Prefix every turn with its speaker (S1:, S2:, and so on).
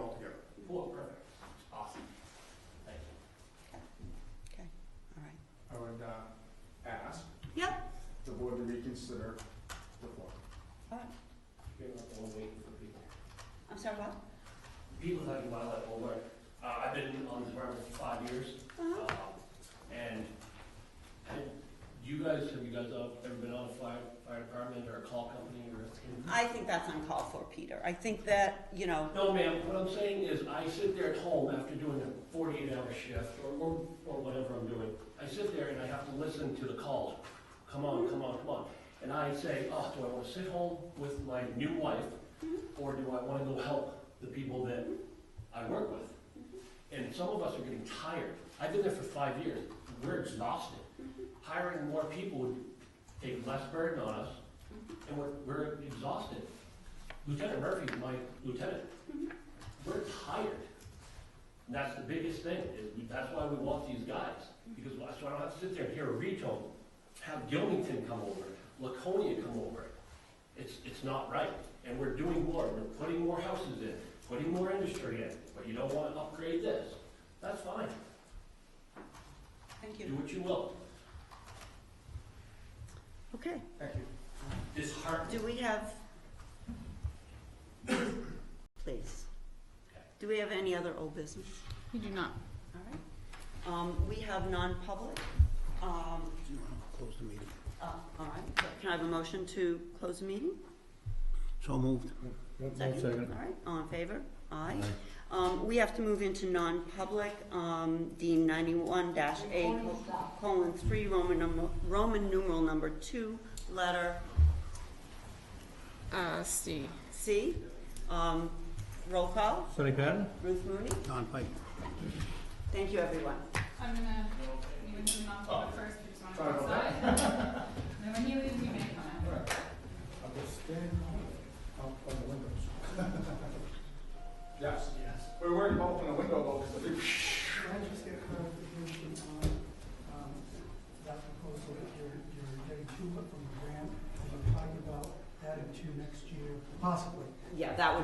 S1: uh, consider reform.
S2: All right.
S1: You're not the one waiting for people.
S2: Uh, I'm sorry, what?
S3: People talking about that whole work. Uh, I've been on the department for five years,
S2: Uh-huh.
S3: um, and you guys, have you guys all ever been on a fire, fire department or a call company or a?
S2: I think that's uncalled for, Peter. I think that, you know,
S3: No, ma'am, what I'm saying is I sit there at home after doing a forty-eight hour shift or, or, or whatever I'm doing. I sit there and I have to listen to the calls, come on, come on, come on. And I say, oh, do I wanna sit home with my new wife? Or do I wanna go help the people that I work with? And some of us are getting tired. I've been there for five years. We're exhausted. Hiring more people would take less burden on us, and we're, we're exhausted. Lieutenant Murphy's my lieutenant. We're tired. And that's the biggest thing, is we- that's why we want these guys, because why- so I don't have to sit there and hear a retone, have Gilmington come over, Laconia come over. It's, it's not right, and we're doing more, we're putting more houses in, putting more industry in, but you don't wanna upgrade this. That's fine,
S2: thank
S3: do
S2: you.
S3: what you will.
S2: Okay.
S1: Thank you.
S3: Disheartening.
S2: Do we have? Please. Do we have any other old business?
S4: We do not.
S2: All right. Um, we have non-public. Um,
S5: Close the meeting.
S2: uh, all right. Can I have a motion to close the meeting?
S5: So moved.
S2: All right, all in favor? Aye. Um, we have to move into non-public, um, Dean ninety-one dash A colon three, Roman number, Roman numeral number two, letter
S4: Uh, C.
S2: C. Um, roll call,
S6: Sonny Patton?
S2: Ruth Mooney.
S5: Don Pike.
S2: Thank you, everyone.
S7: I'm gonna, you can turn off the first, you just
S1: Sorry
S7: wanna
S1: about
S7: go outside. And then when he leaves, you may come out.
S1: I'll just stand out by the windows. Yes. Yes. We were worried about opening the window though, because the big.
S8: Can I just get clarification on, um, that proposal that you're, you're getting two from the grant, and you're talking about adding two next year, possibly?
S2: Yeah, that would